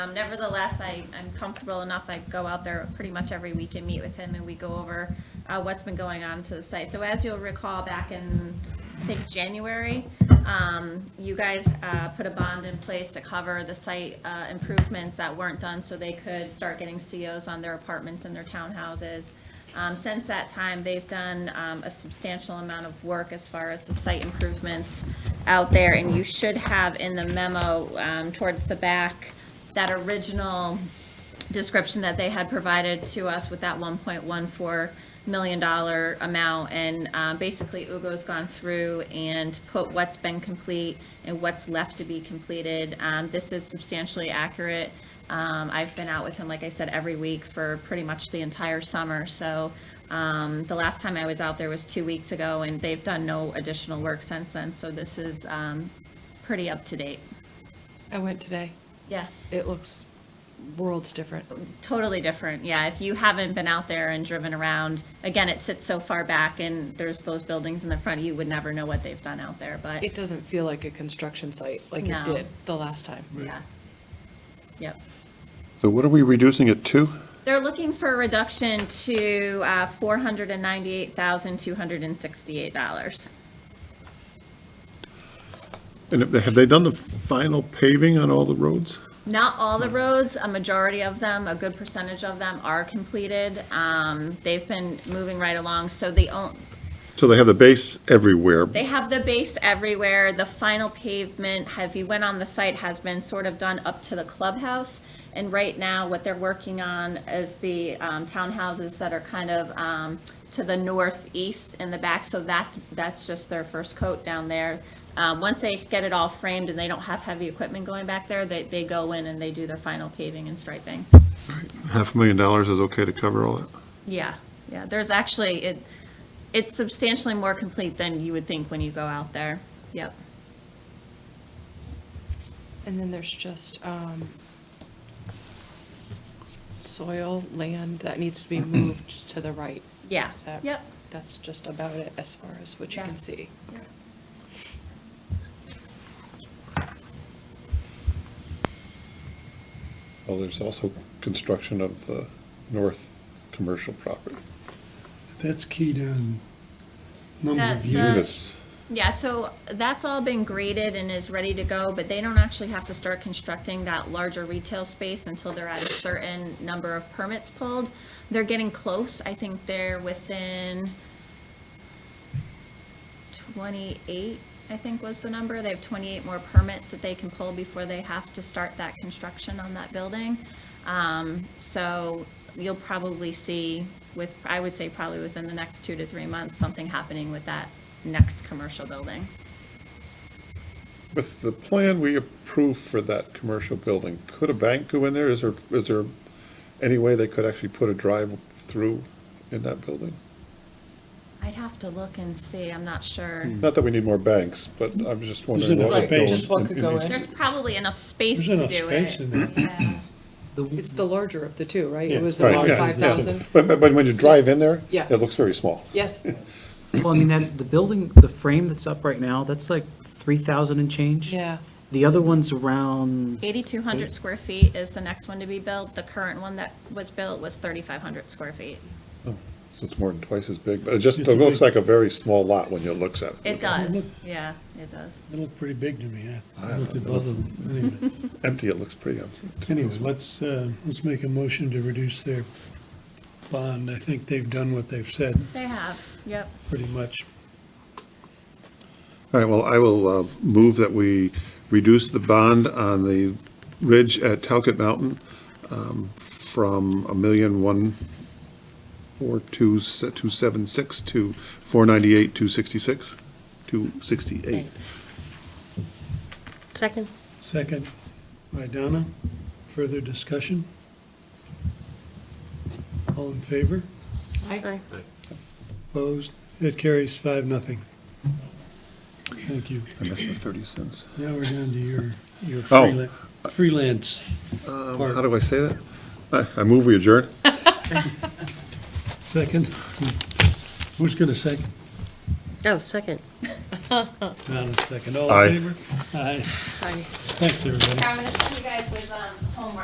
Um, nevertheless, I, I'm comfortable enough, I go out there pretty much every week and meet with him, and we go over, uh, what's been going on to the site. So as you'll recall, back in, I think, January, um, you guys, uh, put a bond in place to cover the site, uh, improvements that weren't done, so they could start getting COs on their apartments and their townhouses. Um, since that time, they've done, um, a substantial amount of work as far as the site improvements out there, and you should have in the memo, um, towards the back, that original description that they had provided to us with that one point one four million dollar amount. And uh, basically, Ugo's gone through and put what's been complete and what's left to be completed. Um, This is substantially accurate. Um, I've been out with him, like I said, every week for pretty much the entire summer. So um, the last time I was out there was two weeks ago, and they've done no additional work since then. So this is um, pretty up to date. I went today. Yeah. It looks worlds different. totally different. Yeah, if you haven't been out there and driven around, again, it sits so far back and there's those buildings in the front, you would never know what they've done out there, but It doesn't feel like a construction site like No. it did the last time. yeah. Yep. So what are we reducing it to? They're looking for a reduction to uh, $498,268. And have they- have they done the final paving on all the roads? Not all the roads, a majority of them, a good percentage of them are completed. Um, They've been moving right along, so the, on- So they have the base everywhere. They have the base everywhere. The final pavement, have you went on the site, has been sort of done up to the clubhouse. And right now, what they're working on is the um, townhouses that are kind of um, to the northeast in the back. So that's, that's just their first coat down there. Um, Once they get it all framed and they don't have heavy equipment going back there, they, they go in and they do their final paving and striping. Half a million dollars is okay to cover all that? Yeah, yeah, there's actually, it, it's substantially more complete than you would think when you go out there. Yep. And then there's just um, soil, land that needs to be moved to the right. Yeah. Is that- Yep. That's just about it as far as what you Yeah. can see. Well, there's also construction of the north commercial property. That's keyed on number That- of the- units. Yeah, so that's all been graded and is ready to go, but they don't actually have to start constructing that larger retail space until they're at a certain number of permits pulled. They're getting close. I think they're within twenty-eight, I think was the number. They have twenty-eight more permits that they can pull before they have to start that construction on that building. Um, so you'll probably see with, I would say probably within the next two to three months, something happening with that next commercial building. With the plan we approved for that commercial building, could a bank go in there? Is there, is there any way they could actually put a drive-through in that building? I'd have to look and see, I'm not sure. Hmm. Not that we need more banks, but I'm just wondering. enough what would go space. Just what could go in. There's probably enough space There's to do it. enough space in there. Yeah. It's the larger of the two, right? Yeah. It was Right, around yeah, yeah. 5,000. But, but but when you drive in there, Yeah. it looks very small. Yes, Well, I mean, that, the building, the frame that's up right now, that's like three thousand and change. yeah. The other one's around, 8,200 square feet is the next one to be built. The current one that was built was 3,500 square feet. Oh, So it's more than twice as big, but it just, It's it a looks like big- a very small lot when you looks at it. It does, yeah, it does. It looked pretty big to me. I- I I looked don't at both of them. Anyway, Empty, it looks pretty empty. Anyway, let's, uh, let's make a motion to reduce their bond. I think they've done what they've said, They have, yep. pretty much. All right, well, I will uh, move that we reduce the bond on the ridge at Talcott Mountain um, from a million one four two se- two seven six to four ninety-eight, two sixty-six, two sixty-eight. Second. Second by Donna. Further discussion? All in favor? Aye. Opposed? It carries five, nothing. Thank you. I missed the thirty cents. Now we're down to your, your Oh. freelan- freelance Um, Pardon. How do I say that? I- I move we adjourn. second. Who's going to second? Oh, second. Not a second. All Aye. in favor? Aye. Aye. Thanks, everybody. I'm gonna send you guys with, um, homework.